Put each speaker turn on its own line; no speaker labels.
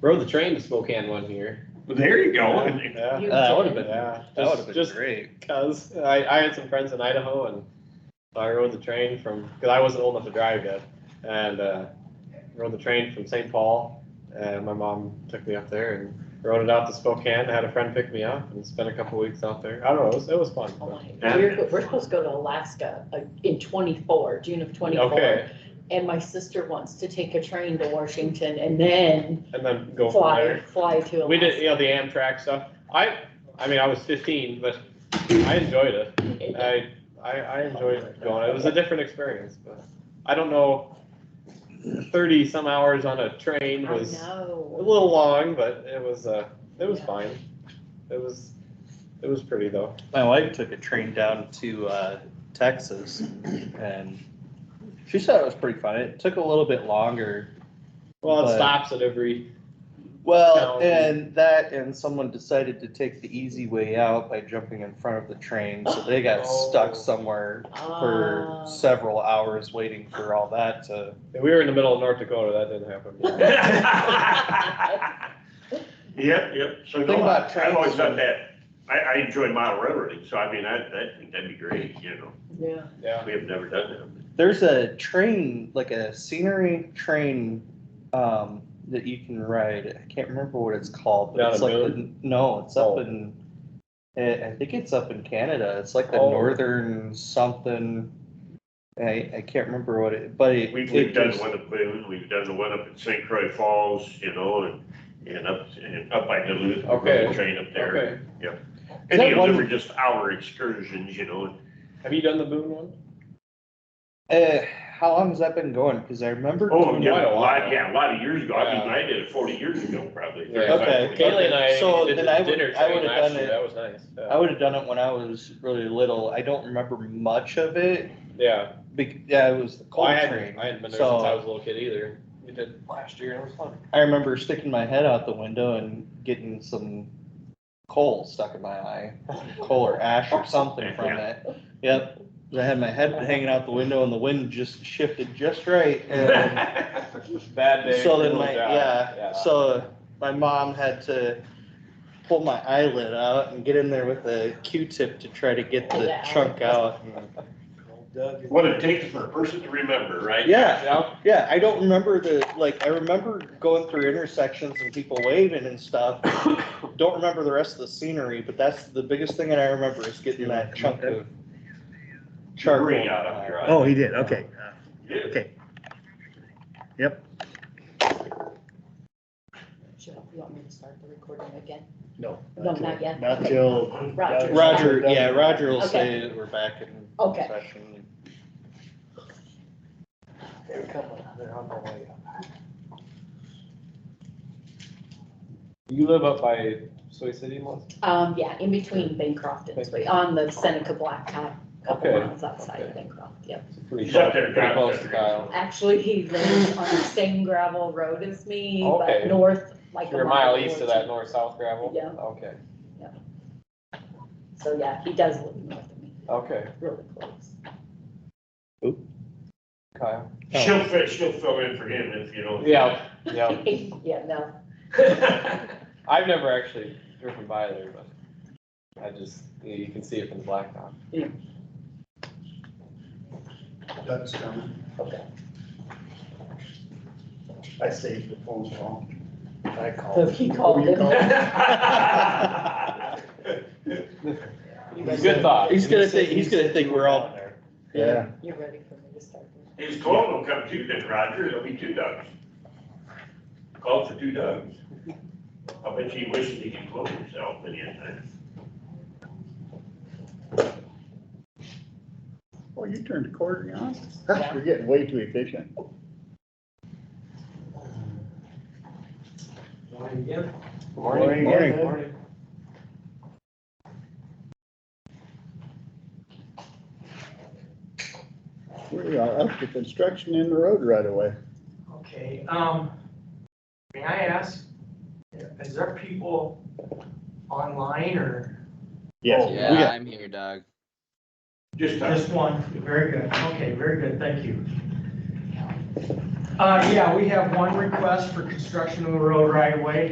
Rode the train to Spokane one year.
There you go. And-
Yeah.
You
That
did.
would've been,
Yeah,
that would've
just,
been
just
great.
Cause I, I had some friends in Idaho and I rode the train from, cause I wasn't old enough to drive yet. And, uh, rode the train from St. Paul and my mom took me up there and rode it out to Spokane. Had a friend pick me up and spent a couple weeks out there. I don't know, it was, it was fun.
Oh my-
Yeah.
We're, we're supposed to go to Alaska uh, in twenty-four, June of twenty-four.
Okay,
And my sister wants to take a train to Washington and then
and then go from
fly,
there.
fly to
We did,
Alaska.
you know, the Amtrak stuff. I, I mean, I was fifteen, but I enjoyed it. I, I, I enjoyed going. It was a different experience, but I don't know. Thirty some hours on a
I
train was a
know.
little long, but it was, uh, it was
Yeah.
fine. It was, it was pretty though.
My wife took a train down to uh, Texas, and she said it was pretty fun. It took a little bit longer.
Well, it
But-
stops at every,
Well,
No.
and that, and someone decided to take the easy way out by jumping in front of the train, so they got
Oh.
stuck somewhere for
Ah.
several hours waiting for all that to.
if we were in the middle of North Dakota, that didn't happen.
Yep, yep. So
Think
no, I-
about
I've always
trains.
done that. I, I enjoy mile railroading, so I mean, I, I think that'd be great, you know.
Yeah.
Yeah,
We have never done that.
There's a train, like a scenery train, um, that you can ride. I can't remember what it's called, but
Down
it's
in
like, the- no, it's up
Oh.
in, eh, I, I think it's up in Canada. It's like the
Oh.
northern something. I, I can't remember what it, but it.
We've,
it
we've done
just-
one up, there, we've done the one up at St. Croix Falls, you know, and, and up, and up by Duluth, we rode
Okay.
the train up there.
okay.
Is
And
that
you know, they
one-
were just hour excursions, you know, and
Have you done the Boone one?
Uh, how long has that been going? Cause I remember.
Oh,
doing
yeah,
it-
a lot, yeah, a lot of years ago. I mean,
Yeah.
I did it forty years ago, probably.
Yeah.
Okay.
35, 40.
Kaylee and
So
I did
then
the
I would-
dinner
I
train
would've
last
done
year.
it-
That was nice.
I
Yeah.
would have done it when I was really little. I don't remember much of it.
Yeah,
Bec- yeah, it was the
Well,
coal
I
train.
hadn't, I hadn't been there since
So-
I was a little kid either. We did last year, and it was fun.
I remember sticking my head out the window and getting some coal stuck in my eye, coal or ash or something from it. Yep, I had my head hanging out the window and the wind just shifted just right. And
Bad day.
Um, so
for
then my,
the job.
yeah, so my mom had to pull my eyelid out and get in there with a Q-tip to try to get the
Yeah.
chunk out.
What it takes for a person to remember, right?
Yeah,
Yeah,
Yeah, I don't remember the, like, I remember going through intersections and people waving and stuff. Don't remember the rest of the scenery, but that's the biggest thing that I remember is getting that chunk of charcoal.
Bring out of your eye.
Oh, he did, okay,
Yeah.
okay.
Should I- You want me to start the recording again?
No.
No, not yet.
Not till.
Roger.
Roger, yeah, Roger will say that we're back in
Okay.
session.
They're coming, they're on their way up.
You live up by Soy City, Melissa?
Um, yeah, in between Bancroft and Sweet, on the Seneca Blacktop, couple
Okay.
miles outside of Bancroft, yep.
It's pretty
He's up
close-
there,
Pretty
Kyle.
close to Kyle.
Actually, he lives on the same gravel road as me,
Okay.
but north, like.
You're a mile east
or
of that
two.
north-south gravel?
Yeah.
Okay,
So, yeah, he does live north of me,
Oh, okay,
really close.
Kyle.
She'll fit, she'll fill in for him if you don't.
Yeah, yeah.
Yeah, no,
I've never actually driven by there, but I just, you can see it from the blacktop.
Doug's coming.
okay.
I saved the phone call. I
So
called. Oh,
he called
you
him. You
Good
ready,
thought.
He's gonna think, he's gonna think we're all,
Yeah.
you ready for me to start? the-
His clone will come too, then Roger, it'll be two dogs. Call for two dogs. I bet he wishes he could clone himself many a time.
Oh, you turned a quarter on?
Yeah.
You're getting way too efficient.
Morning.
Morning. We are up to construction in the road right away.
Okay, um, may I ask, is there people online or
Yes. Oh, we
Yeah,
got-
I'm here, Doug.
Just,
just one? Very good, okay, very good, thank you. Uh, yeah, we have one request for construction of the road right away.